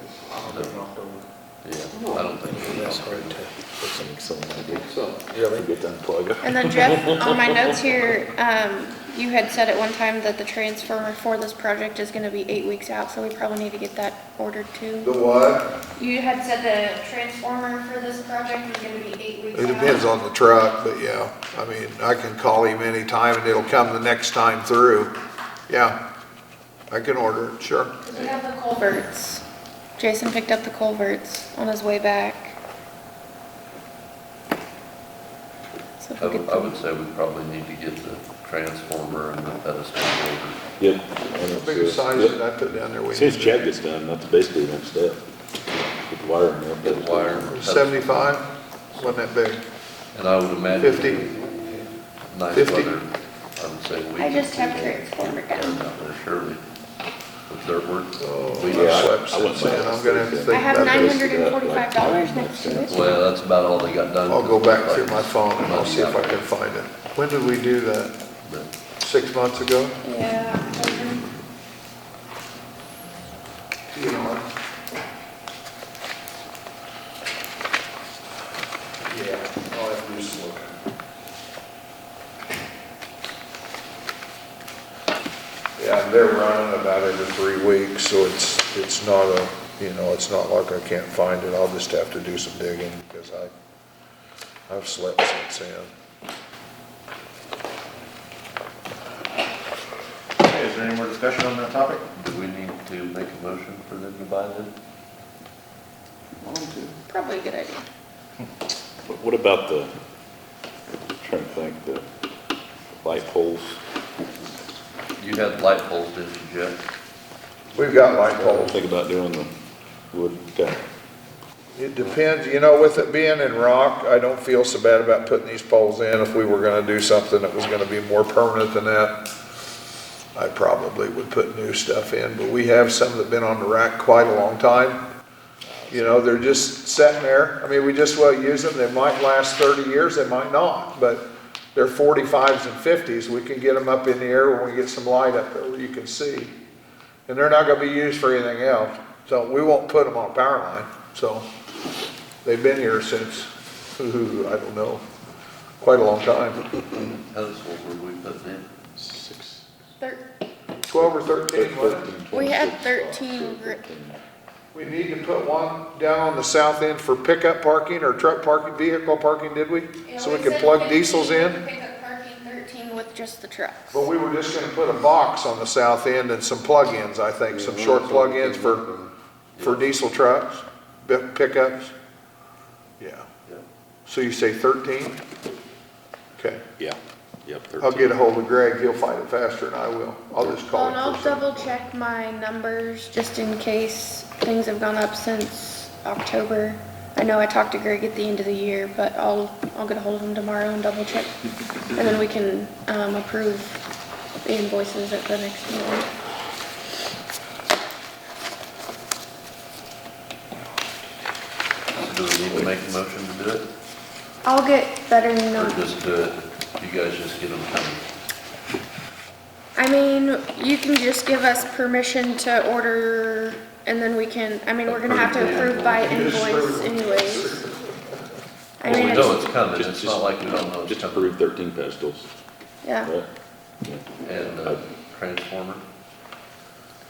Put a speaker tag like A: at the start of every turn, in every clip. A: so, yeah, I don't think it
B: That's
A: is.
B: hard to, that's an excellent idea.
A: So,
B: Really? Get to unplug it.
C: And then Jeff, on my notes here, um, you had said at one time that the transformer for this project is gonna be eight weeks out, so we probably need to get that ordered
D: The
C: too.
D: what?
C: You had said the transformer for this project is gonna be eight weeks
D: It
C: out.
D: depends on the truck, but yeah, I mean, I can call him anytime and it'll come the next time through. Yeah, I can order it, sure.
C: 'Cause We have the culverts. Jason picked up the culverts on his way back. So if
A: I
C: we could
A: would, I would say we probably need to get the transformer and the pedestal ordered.
E: Yep.
D: Biggest size that I put down there, we
E: As soon as Chad gets done, that's basically the next step. Get the wire in there.
A: Get wire and pedestal.
D: seventy-five, wasn't that big?
A: And I would imagine.
D: 50.
A: Nice
D: 50.
A: weather, I would say we.
C: I
A: could
C: just have
A: do
C: transformer
A: that
C: down.
A: down there, Surely, with dirt
D: Oh,
A: work. we-
E: Yeah, I-
D: I slept
E: I wouldn't
D: since then, I'm
E: mind.
D: gonna have to think
C: I have
D: about
C: nine
D: this.
C: hundred and forty-five dollars next to it.
A: Well, that's about all they got done.
D: I'll go back through my phone and I'll see if I can find it. When did we do that? Six months ago?
C: Yeah.
D: You know,
F: Yeah, I'll have to do some looking.
D: Yeah, they're running about every three weeks, so it's, it's not a, you know, it's not like I can't find it, I'll just have to do some digging, because I, I've slept since then.
F: Okay, is there any more discussion on that topic?
A: Do we need to make a motion for them to buy them?
C: Probably a good idea.
E: But What about the, trying to think, the light poles?
A: You had light poles, didn't you, Jeff?
D: We've got light poles.
E: Think about doing the wood, okay.
D: It depends, you know, with it being in rock, I don't feel so bad about putting these poles in. If we were gonna do something that was gonna be more permanent than that, I probably would put new stuff in, but we have some that've been on the rack quite a long time. You know, they're just sitting there. I mean, we just will use them. They might last thirty years, they might not, but they're forty-fives and fifties. We can get them up in the air when we get some light up there where you can see. And they're not gonna be used for anything else, so we won't put them on a power line, so. They've been here since, ooh, I don't know, quite a long time,
A: Pedestals were we putting in?
C: Thir-
D: twelve or thirteen, wasn't it?
C: We had thirteen gr-
D: We need to put one down on the south end for pickup parking or truck parking, vehicle parking, did we? So we can plug diesels in,
C: Pick up parking thirteen with just the trucks.
D: but we were just gonna put a box on the south end and some plug-ins, I think, some short plug-ins for, for diesel trucks, bi- pickups. Yeah,
A: Yeah.
D: so you say thirteen? Okay,
E: Yeah, yep.
D: I'll get a hold of Greg, he'll find it faster than I will, I'll just
C: Well,
D: call him.
C: and Oh, I'll
D: first thing.
C: double check my numbers just in case things have gone up since October. I know I talked to Greg at the end of the year, but I'll, I'll get a hold of him tomorrow and double check. And then we can, um, approve the invoices at the next meeting.
A: So do we need to make a motion to do it?
C: I'll get better
A: Or
C: numbers.
A: just do it, you guys just get them coming?
C: I mean, you can just give us permission to order and then we can, I mean, we're gonna have to approve by invoice anyways. I
A: Well, we
C: mean,
A: know it's coming,
E: Just-
A: it's
E: just-
A: not like we don't know it's
E: Just
A: coming.
E: approve thirteen pedestals,
C: yeah,
E: right?
A: And uh, transformer,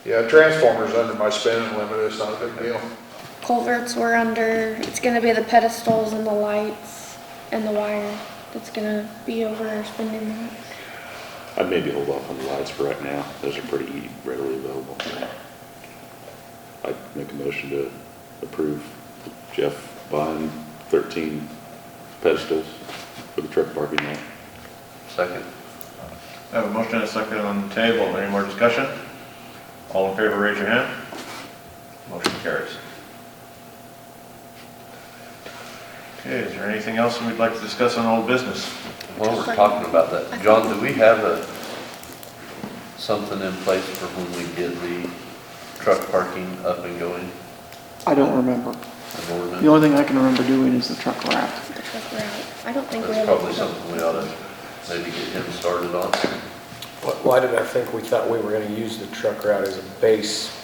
D: Yeah, transformer's under my spending limit, it's not a big deal.
C: culverts were under, it's gonna be the pedestals and the lights and the wire that's gonna be over our spending limit.
E: I'd maybe hold off on the lights for right now. Those are pretty readily available. I'd make a motion to approve Jeff buying thirteen pedestals for the truck parking lot.
A: second.
F: I have a motion and a second on the table. Any more discussion? All in favor, raise your hand. Motion carries. Okay, is there anything else we'd like to discuss on old business?
A: While we're talking about that, John, do we have a, something in place for when we get the truck parking up and going?
G: I don't remember.
A: An
G: The
A: ordinance?
G: only thing I can remember doing is the truck wrap.
C: The truck route. I don't think we
A: That's
C: have.
A: probably something we ought to maybe get him started on.
B: Why did I think we thought we were gonna use the truck route as a base